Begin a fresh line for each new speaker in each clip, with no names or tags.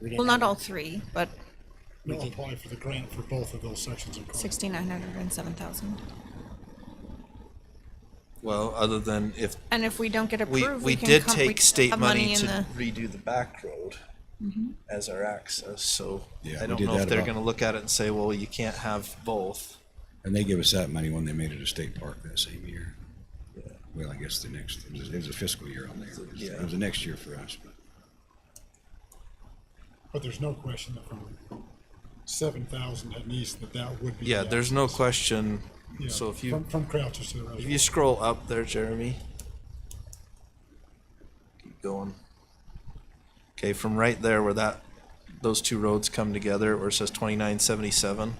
We didn't
Well, not
have-
all three, but
We'll apply for the grant for both of those sections of Chrome.
sixty-nine hundred and seven thousand.
Well, other than if
And if we don't get
we,
approved,
we
can
did
come-
take
can
state
have
money
in
to
the- Mm-hmm.
redo the back road as our access, so
Yeah,
I
we
don't
did
know if
that
they're
about-
gonna look at it and say, well, you can't have both.
And they gave us that money when they made it a state park that same year. Well, I guess the next, it was, it was a fiscal year on there. It was- It was the next year for us, but
But there's no question that from seven thousand at least, that that would be.
Yeah,
the
there's no question,
Yeah,
so if
From,
you,
from Crouchers to the
if you
reservoir.
scroll up there, Jeremy. Keep going. Okay, from right there where that, those two roads come together, where it says twenty-nine seventy-seven,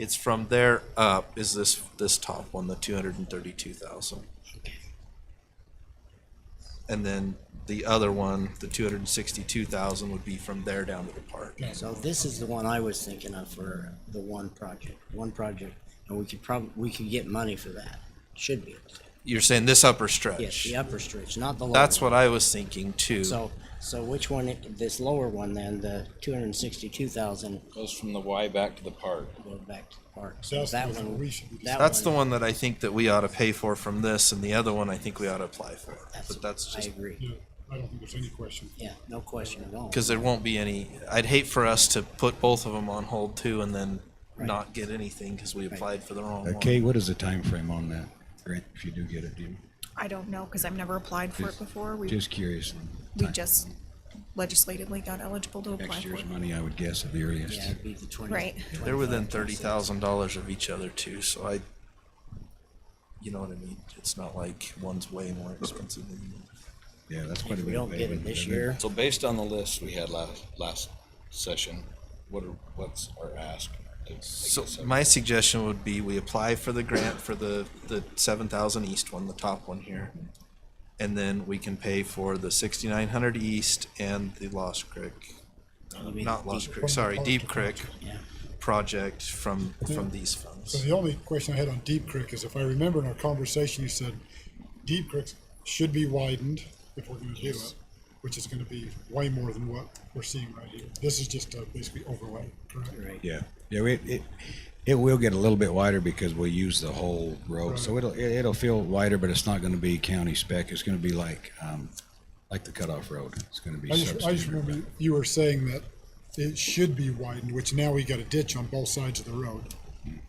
it's from there up is this, this top one, the two hundred and thirty-two thousand. And then the other one, the two hundred and sixty-two thousand would be from there down to the park.
So this is the one I was thinking of for the one project, one project, and we could probably, we could get money for that. Should be. able to.
You're saying this upper
Yes,
stretch?
the upper stretch, not the lower.
That's
one.
what I was thinking too.
So, so which one, this lower one then, the two hundred and sixty-two thousand
Goes from the Y back to the park.
go back to the park. So
That's the
that
one we
one,
should be.
that
That's the one that I think that we ought to pay for from this, and the other one I think we ought to apply for. But that's
I
just,
agree.
Yeah, I don't think there's any question.
Yeah, no question at all.
because there won't be any, I'd hate for us to put both of them on hold too and then not get anything because we applied for the wrong
Uh,
one.
Kay, what is the time frame on that grant if you do get it, do you?
I don't know, cause I've never applied for it
Just-
before. We,
Just curious. on
we
time.
just legislatively got eligible to apply
Next
for
year's
it.
money, I would guess, at the
Yeah,
earliest.
it'd be the twenty.
Right.
They're within thirty thousand dollars of each other too, so I, you know what I mean? It's not like one's way more expensive than the other.
Yeah, that's quite a bit.
If we
of
don't get it
payment,
this
isn't it?
year,
So based on the list we had last, last session, what are, what's our ask? to make
So
this happen?
my suggestion would be we apply for the grant for the, the seven thousand east one, the top one here. And then we can pay for the sixty-nine hundred east and the Lost Creek,
maybe-
not Lost Creek, sorry, Deep Creek
yeah.
project from, from these
So
funds.
the only question I had on Deep Creek is if I remember in our conversation, you said Deep Creek should be widened if we're gonna do it, which is gonna be way more than what we're seeing right here. This is just a basically overlay, correct?
Right.
Yeah, yeah, it, it, it will get a little bit wider because we'll use the whole road, so it'll, it- it'll feel wider, but it's not gonna be county spec, it's gonna be like, um, like the cutoff road, it's gonna be
I just, I just
substandard.
remember you were saying that it should be widened, which now we got a ditch on both sides of the road.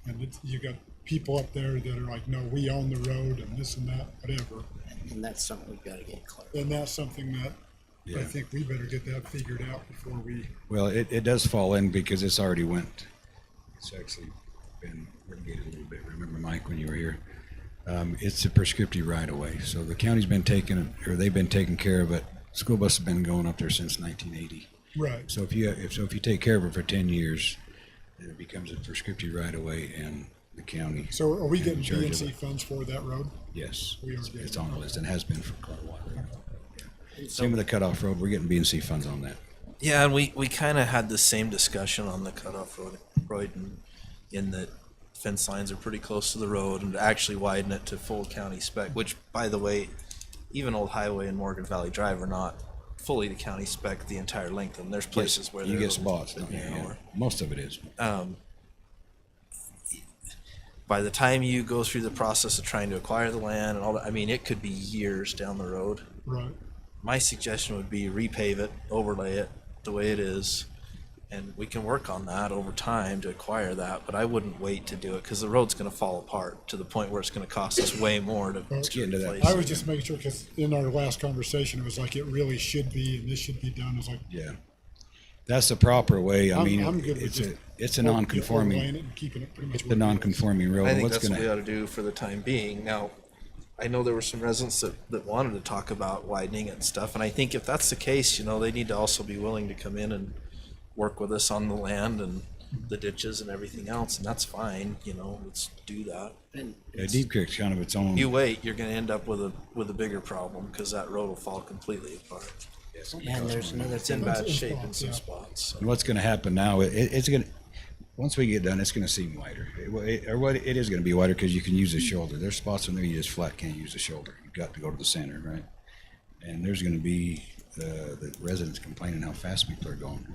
And it's, you got people up there that are like, no, we own the road and this and that, whatever.
And that's something we've gotta get clear.
And that's something that I
Yeah.
think we better get that figured out before we,
Well, it, it does fall in because it's already went, it's actually been litigated a little bit. Remember, Mike, when you were here? Um, it's a prescriptive right of way. So the county's been taking, or they've been taking care of it. School bus has been going up there since nineteen eighty.
right.
So if you, if, so if you take care of it for ten years, then it becomes a prescriptive right of way and the county.
So are we
and in
getting
charge of
BNC
it.
funds for that road?
Yes,
We are
it's
getting-
it's on the list and has been for quite a while. Yeah. Same with the cutoff road. We're getting B and C funds on that.
Yeah, and we, we kind of had the same discussion on the cutoff road, road and in that fence lines are pretty close to the road and to actually widen it to full county spec, which by the way, even Old Highway and Morgan Valley Drive are not fully the county spec the entire length, and there's places where
You
they're
get
a little
spots,
bit
don't you? Yeah.
narrower.
Most of it is.
By the time you go through the process of trying to acquire the land and all that, I mean, it could be years down the road.
Right.
My suggestion would be repave it, overlay it the way it is, and we can work on that over time to acquire that, but I wouldn't wait to do it, because the road's gonna fall apart to the point where it's gonna cost us way more to
Let's
get into that.
replace
I
it.
was just making sure, because in our last conversation, it was like, it really should be, and this should be done. It's like,
Yeah. That's the proper way. I
I'm,
mean,
I'm good with
it's
just.
a, it's a
or- overlaying
non-conforming,
it and Keeping it pretty much.
the non-conforming road.
I think
What's
that's what we ought
gonna,
to do for the time being. Now, I know there were some residents that, that wanted to talk about widening it and stuff, and I think if that's the case, you know, they need to also be willing to come in and work with us on the land and the ditches and everything else, and that's fine, you know, let's do that.
And
yeah, Deep Creek's kind of its own.
You wait, you're gonna end up with a, with a bigger problem, cause that road will fall completely apart.
and there's another
It's in
thing,
bad
in
shape in
spots,
some
yeah.
spots, so.
And what's gonna happen now, it, it's gonna, once we get done, it's gonna seem wider. It, wa- it- or what, it is gonna be wider because you can use the shoulder. There's spots in there you just flat can't use the shoulder. You've got to go to the center, right? And there's gonna be, uh, the residents complaining how fast people are going.